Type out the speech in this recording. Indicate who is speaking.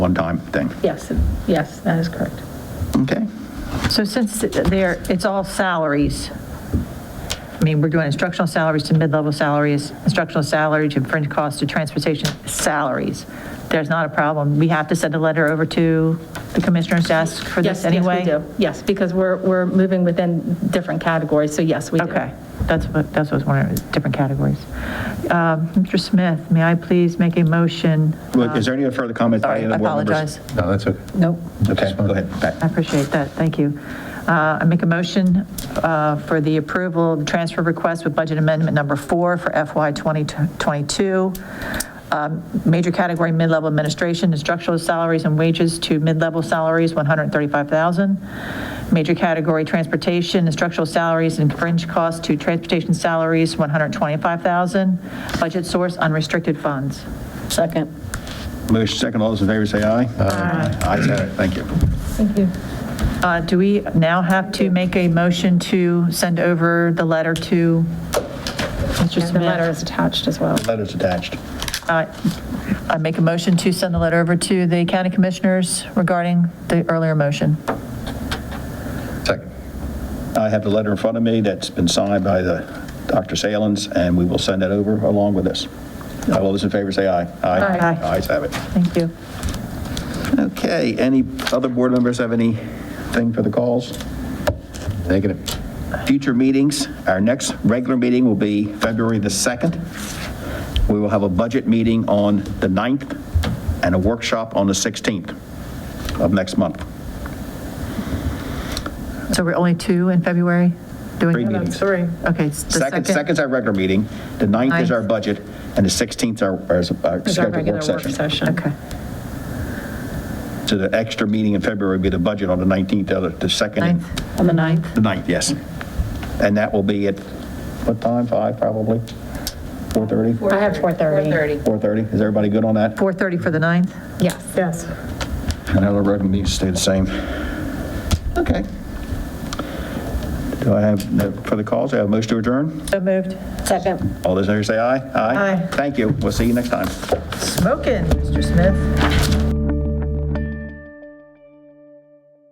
Speaker 1: one-time thing.
Speaker 2: Yes, yes, that is correct.
Speaker 1: Okay?
Speaker 3: So since there, it's all salaries, I mean, we're doing instructional salaries to mid-level salaries, instructional salary to fringe costs to transportation salaries. There's not a problem. We have to send a letter over to the commissioner's desk for
Speaker 2: Yes,
Speaker 3: this anyway?
Speaker 2: Yes, we do. Yes, because we're, we're moving within different categories, so yes, we do.
Speaker 3: Okay, that's what, that's what I was wondering, different categories. Um, Mr. Smith, may I please make a motion?
Speaker 1: Look, Is there any further comments? by any
Speaker 3: Sorry,
Speaker 1: of
Speaker 3: I
Speaker 1: the board members?
Speaker 3: apologize.
Speaker 4: No, that's okay.
Speaker 3: Nope.
Speaker 1: Okay, go ahead,
Speaker 3: I
Speaker 1: Pat.
Speaker 3: appreciate that, thank you. Uh, I make a motion uh, for the approval of transfer request with budget amendment number four for FY 2022. Um, Major category, mid-level administration, instructional salaries and wages to mid-level salaries, 135,000. Major category, transportation, instructional salaries and fringe costs to transportation salaries, 125,000. Budget source, unrestricted funds.
Speaker 2: Second.
Speaker 1: Motion second, all those in favor say aye. Aye. Ayes have it, thank you.
Speaker 2: Thank you.
Speaker 3: Uh, Do we now have to make a motion to send over the letter to Mr.
Speaker 2: The letter
Speaker 3: Smith?
Speaker 2: is attached as well.
Speaker 1: Letters attached.
Speaker 3: I make a motion to send the letter over to the county commissioners regarding the earlier motion.
Speaker 4: Second.
Speaker 1: I have the letter in front of me that's been signed by the, Dr. Salins, and we will send that over along with this. All those in favor say aye.
Speaker 3: Aye. Aye.
Speaker 1: Ayes have it.
Speaker 3: Thank you.
Speaker 1: Okay, any other board members have anything for the calls?
Speaker 4: Negative.
Speaker 1: Future meetings, our next regular meeting will be February the 2nd. We will have a budget meeting on the 9th and a workshop on the 16th of next month.
Speaker 3: So we're only two in February? doing-
Speaker 1: Three meetings.
Speaker 3: Three. Okay, it's the
Speaker 1: Second,
Speaker 3: second.
Speaker 1: second's our regular meeting, the 9th is our
Speaker 3: Ninth.
Speaker 1: budget, and the 16th our- our our
Speaker 2: Is our
Speaker 1: scheduled
Speaker 2: regular
Speaker 1: work session.
Speaker 3: Okay,
Speaker 1: So the extra meeting in February will be the budget on the 19th, the the second. and-
Speaker 3: ninth.
Speaker 2: On the 9th?
Speaker 1: The 9th, yes. And that will be at, what time, 5 probably? 4:30?
Speaker 2: I have 4:30.
Speaker 1: 4:30, is everybody good on that?
Speaker 3: 4:30 for the ninth?
Speaker 2: Yes. Yes.
Speaker 1: And other revenue needs to stay the same. Okay. Do I have, no further calls, do I have a motion to adjourn?
Speaker 3: So moved.
Speaker 2: Second.
Speaker 1: All those in favor say aye.
Speaker 3: Aye.
Speaker 1: Thank you, we'll see you next time.
Speaker 3: Smoking, Mr. Smith.